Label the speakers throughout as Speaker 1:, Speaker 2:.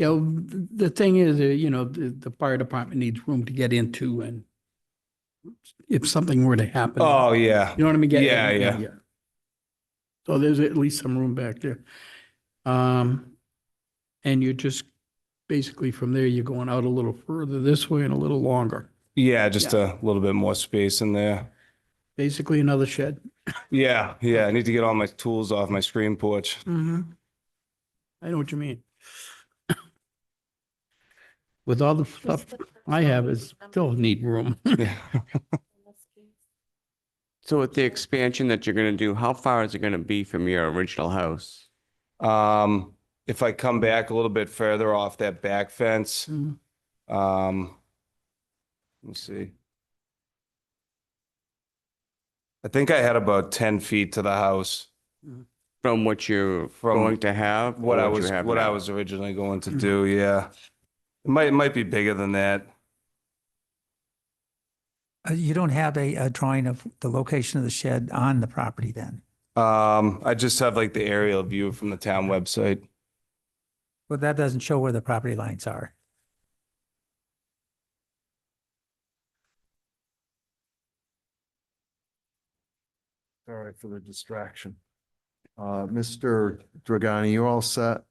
Speaker 1: You know, th- the thing is, uh, you know, the, the fire department needs room to get into and if something were to happen.
Speaker 2: Oh, yeah.
Speaker 1: You know what I mean? Get-
Speaker 2: Yeah, yeah.
Speaker 1: So there's at least some room back there. Um, and you're just, basically from there, you're going out a little further this way and a little longer.
Speaker 2: Yeah, just a little bit more space in there.
Speaker 1: Basically another shed.
Speaker 2: Yeah, yeah. I need to get all my tools off my screen porch.
Speaker 1: I know what you mean. With all the stuff I have, is still need room.
Speaker 2: Yeah.
Speaker 3: So with the expansion that you're gonna do, how far is it gonna be from your original house?
Speaker 2: Um, if I come back a little bit further off that back fence, um, let's see. I think I had about ten feet to the house,
Speaker 3: From what you're
Speaker 2: From
Speaker 3: going to have? or
Speaker 2: what I
Speaker 3: you
Speaker 2: was,
Speaker 3: have
Speaker 2: what I
Speaker 3: now?
Speaker 2: was originally going to do, yeah. It might, it might be bigger than that.
Speaker 4: Uh, You don't have a, a drawing of the location of the shed on the property then?
Speaker 2: Um, I just have like the aerial view from the town website.
Speaker 4: Well, that doesn't show where the property lines are.
Speaker 5: Sorry for the distraction. Uh, Mr. Dragani, you all set?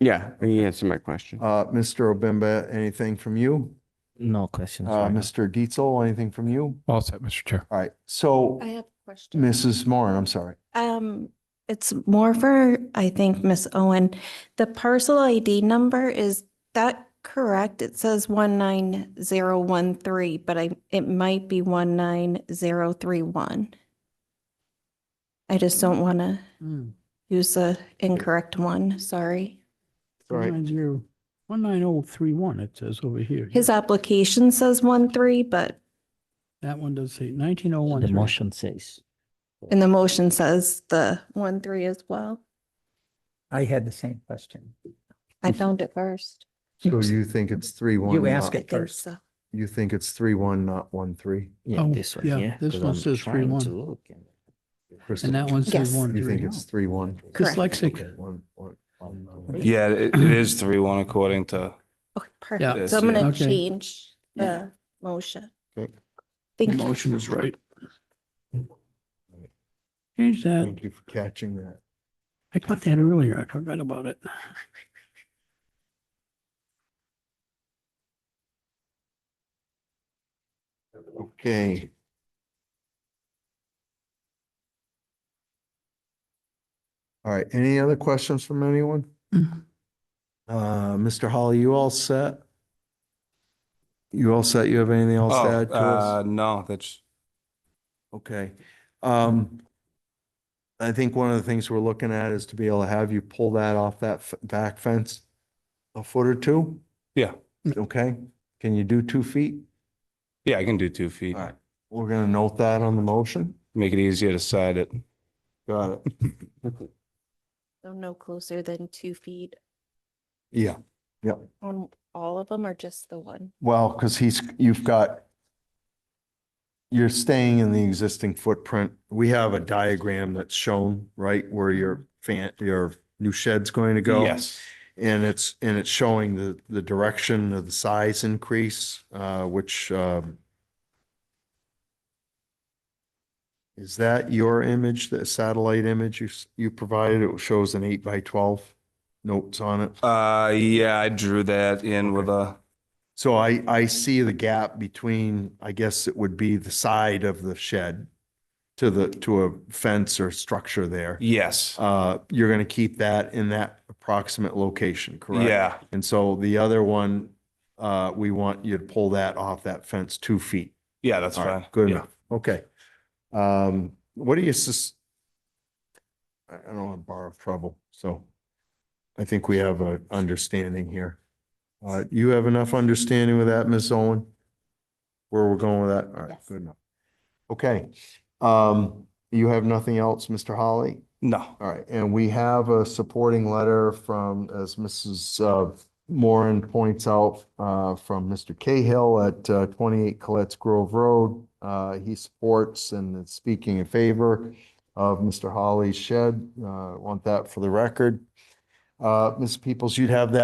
Speaker 3: Yeah, he answered my question.
Speaker 5: Uh, Mr. Obimba, anything from you?
Speaker 6: No questions.
Speaker 5: Uh,
Speaker 6: right now.
Speaker 5: Mr. Dietzel, anything from you?
Speaker 7: All set, Mr. Chair.
Speaker 5: All right, so
Speaker 8: I have a question.
Speaker 5: Mrs. Moran, I'm sorry.
Speaker 8: Um, it's more for, I think, Miss Owen. The parcel ID number, is that correct? It says one nine zero one three, but I, it might be one nine zero three one. I just don't want to use the incorrect one, sorry.
Speaker 5: All right.
Speaker 1: One nine oh three one, it says over here.
Speaker 8: His application says one three, but
Speaker 1: That one does say nineteen oh
Speaker 6: The
Speaker 1: one.
Speaker 6: motion says.
Speaker 8: in the motion says the one three as well.
Speaker 4: I had the same question.
Speaker 8: I found it first.
Speaker 5: So you think it's three one?
Speaker 4: You ask
Speaker 8: I
Speaker 4: it
Speaker 8: think
Speaker 4: first.
Speaker 8: so.
Speaker 5: You think it's three one, not one three?
Speaker 6: Yeah,
Speaker 1: Oh,
Speaker 6: this one,
Speaker 1: yeah,
Speaker 6: yeah.
Speaker 1: this
Speaker 6: 'cause
Speaker 1: one
Speaker 6: I'm
Speaker 1: says three
Speaker 6: trying
Speaker 1: one.
Speaker 6: to look and-
Speaker 5: Crystal,
Speaker 1: And that one says
Speaker 8: Yes.
Speaker 1: one
Speaker 5: You think
Speaker 1: three.
Speaker 5: it's three one?
Speaker 8: Correct.
Speaker 1: Dyslexic.
Speaker 5: One, one, one.
Speaker 2: Yeah, it, it is three one according to,
Speaker 8: Okay, perfect. So
Speaker 2: Yes,
Speaker 8: I'm
Speaker 2: yeah.
Speaker 8: gonna
Speaker 1: Okay.
Speaker 8: change the motion.
Speaker 5: Okay.
Speaker 1: The
Speaker 8: Thank you.
Speaker 1: motion is right. Change that.
Speaker 5: Thank you for catching that.
Speaker 1: I caught that earlier. I forgot about it.
Speaker 5: Okay. All right, any other questions from anyone?
Speaker 8: Mm-hmm.
Speaker 5: Uh, Mr. Holly, you all set? You all set? You have anything
Speaker 2: oh,
Speaker 5: else to add to
Speaker 2: uh,
Speaker 5: us?
Speaker 2: no, that's,
Speaker 5: Okay. Um, I think one of the things we're looking at is to be able to have you pull that off that f- back fence a foot or two?
Speaker 2: Yeah.
Speaker 5: Okay, can you do two feet?
Speaker 2: yeah, I can do two feet.
Speaker 5: All right, we're gonna note that on the motion.
Speaker 2: Make it easier to side it.
Speaker 5: Got it.
Speaker 8: So no closer than two feet
Speaker 5: Yeah.
Speaker 8: on all of them or just the one?
Speaker 5: Well, because he's, you've got, you're staying in the existing footprint. We have a diagram that's shown, right, where your fan, your new shed's going to go.
Speaker 2: Yes.
Speaker 5: And it's, and it's showing the, the direction of the size increase, uh, which, um, is that your image, the satellite image you, s- you provided? It shows an eight by 12 notes on it.
Speaker 2: Uh, yeah, I drew that in with a,
Speaker 5: So I, I see the gap between, I guess it would be the side of the shed to the, to a fence or structure there.
Speaker 2: yes.
Speaker 5: Uh, you're going to keep that in that approximate location, correct?
Speaker 2: Yeah,
Speaker 5: And so the other one, uh, we want you to pull that off that fence two feet.
Speaker 2: yeah, that's
Speaker 5: All right,
Speaker 2: fine.
Speaker 5: Good
Speaker 2: Yeah.
Speaker 5: enough. Okay. Um, what do you sus? I I don't want to borrow trouble, so I think we have a understanding here. Uh, you have enough understanding with that, Ms. Owen? Where we're going with that? All right,
Speaker 8: Yes.
Speaker 5: good enough. Okay. Um, you have nothing else, Mr. Holly?
Speaker 2: No,
Speaker 5: All right, and we have a supporting letter from, as Mrs. uh, Moran points out, uh, from Mr. Cahill at uh, 28 Colette's Grove Road. Uh, He supports and is speaking in favor of Mr. Holly's shed. Uh, Want that for the record. Uh, Ms. Peoples, you'd have that